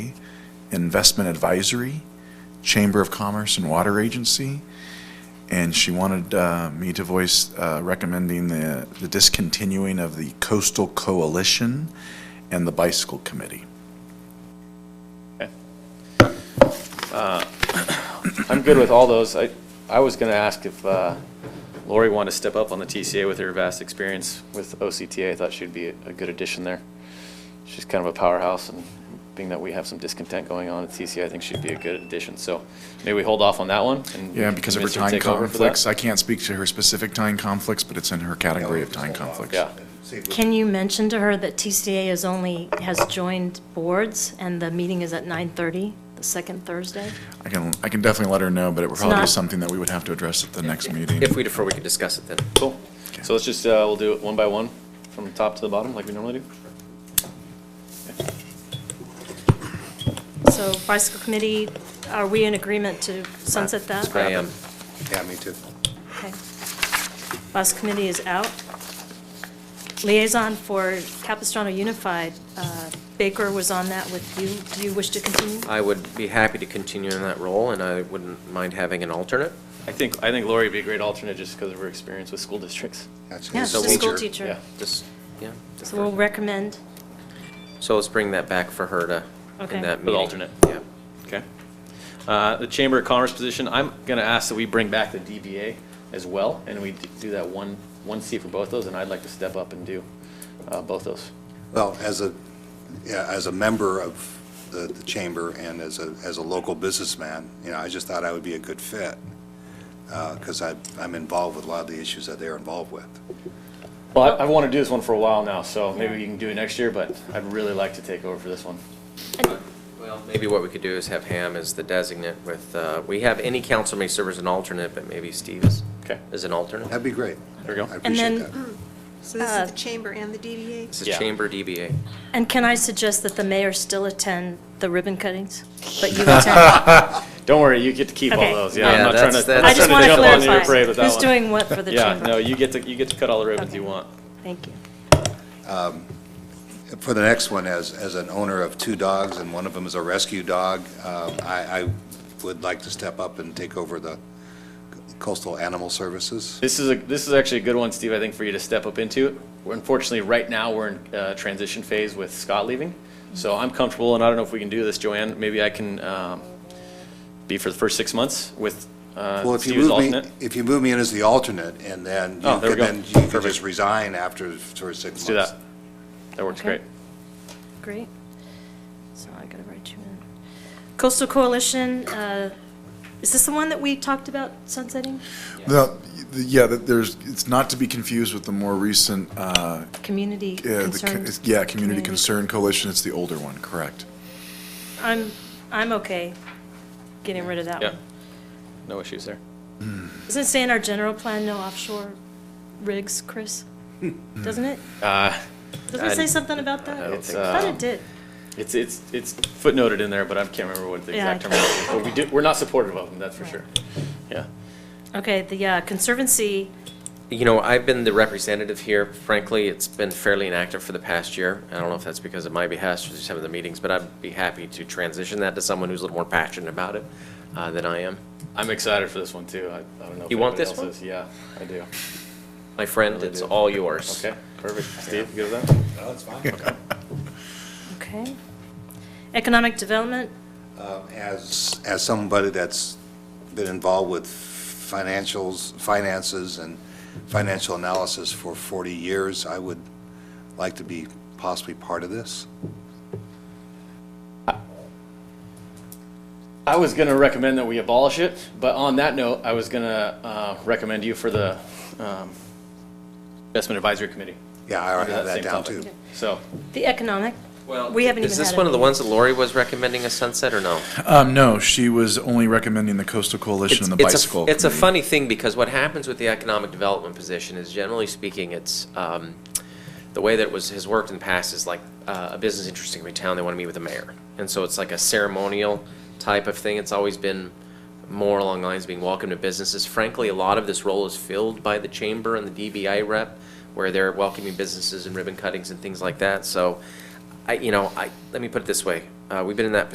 Investment Advisory, Chamber of Commerce and Water Agency, and she wanted uh, me to voice uh, recommending the the discontinuing of the Coastal Coalition and the Bicycle Committee. I'm good with all those. I, I was going to ask if uh, Lori wanted to step up on the TCA with her vast experience with OCTA. I thought she'd be a a good addition there. She's kind of a powerhouse, and being that we have some discontent going on at TCA, I think she'd be a good addition. So maybe we hold off on that one? and Yeah, because of her convince to time take over for that? conflicts. I can't speak to her specific time conflicts, but it's in her category of time conflicts. Yeah. Can you mention to her that TCA is only, has joined boards, and the meeting is at 9:30, the second Thursday? I can, I can definitely let her know, but it would probably be not- something that we would have to address at the next meeting. If we defer, we can discuss it then. Cool. So let's just, uh, we'll do it one by one, from top to the bottom, like we normally do. So bicycle committee, are we in agreement to sunset that? I am. Yeah, me too. Okay. Bus committee is out. Liaison for Capistrano Unified, uh, Baker was on that with you. Do you wish to continue? I would be happy to continue in that role, and I wouldn't mind having an alternate. I think, I think Lori would be a great alternate just because of her experience with school districts. That's Yeah, a she's So a we'll- school Yeah. teacher. Just, yeah. So we'll recommend, So let's bring that back for her to, Okay. in that For meeting. the alternate. Yeah. Okay. Uh, The Chamber of Commerce position, I'm going to ask that we bring back the DBA as well, and we d- do that one, one seat for both those, and I'd like to step up and do uh, both those. Well, as a, yeah, as a member of the, the chamber and as a, as a local businessman, you know, I just thought I would be a good fit, because I, I'm involved with a lot of the issues that they're involved with. Well, I want to do this one for a while now, so maybe you can do it next year, but I'd really like to take over for this one. Well, maybe what we could do is have Ham as the designate with, uh, we have any council may serve as an alternate, but maybe Steve is, Okay, is an alternate. That'd be great. there we I go. and appreciate then, that. So this Uh, is the chamber and the DDA? It's a Yeah. chamber DBA. and can I suggest that the mayor still attend the ribbon cuttings? But you attend. Don't worry, you get to keep all Okay. those. Yeah, I'm Yeah, not trying that's- to, I'm that's- I not just trying want to to jump on your parade clarify, with that one. who's doing what for the Yeah, no, chamber? you get to, you get to cut all the ribbons you Okay. want. Thank you. For the next one, as, as an owner of two dogs and one of them is a rescue dog, um, I, I would like to step up and take over the coastal animal services. This is a, this is actually a good one, Steve, I think, for you to step up into. We're unfortunately, right now, we're in uh transition phase with Scott leaving. So I'm comfortable, and I don't know if we can do this, Joanne, maybe I can, um, be for the first six months with, Well, uh, if you Steve as move me, alternate. if you move me in as the alternate, and then, you Oh, there we could- go. then you could just resign after sort of Let's six months. do that. That works Okay. great. Great. So I gotta write you in. Coastal Coalition, uh, is this the one that we talked about sunsetting? No, yeah, that there's, it's not to be confused with the more recent, uh, Community yeah, the concern? co- yeah, Community Concern Coalition. It's the older one, correct? I'm, I'm okay getting rid of that Yeah. one. No issues there. Doesn't it say in our general plan, no offshore rigs, Chris? Hmm. Doesn't it? Uh, Doesn't it say something about that? I don't It's, think I thought uh, it did. it's, it's, it's footnoted in there, but I can't remember what the Yeah, I exact term is. But we do, we're not supportive of them, that's for sure. Yeah. Okay, the uh, Conservancy, You know, I've been the representative here. Frankly, it's been fairly inactive for the past year. I don't know if that's because of my behest or some of the meetings, but I'd be happy to transition that to someone who's a little more passionate about it uh, than I am. I'm excited for this one, too. I, I don't know. if You want anybody this else one? is. Yeah, I do. My friend, it's all yours. Okay, perfect. Steve, you good with that? okay. Economic Development, As, as somebody that's been involved with financials, finances and financial analysis for 40 years, I would like to be possibly part of this. I was gonna recommend that we abolish it, but on that note, I was gonna uh, recommend you for the um, investment advisory committee. Yeah, I already Under have that same down topic. too. So, the Economic, we haven't even Is this had a one of the meeting. ones that Lori was recommending a sunset or no? Um, no, she was only recommending the Coastal Coalition It's and the it's a- Bicycle It's a Committee. funny thing because what happens with the economic development position is generally speaking, it's, um, the way that it was, has worked in the past is like uh, a business interest in a town, they want to meet with the mayor. And so it's like a ceremonial type of thing. It's always been more along the lines of being welcome to businesses. Frankly, a lot of this role is filled by the chamber and the DBI rep where they're welcoming businesses and ribbon cuttings and things like that. So I, you know, I, let me put it this way. Uh, We've been in that position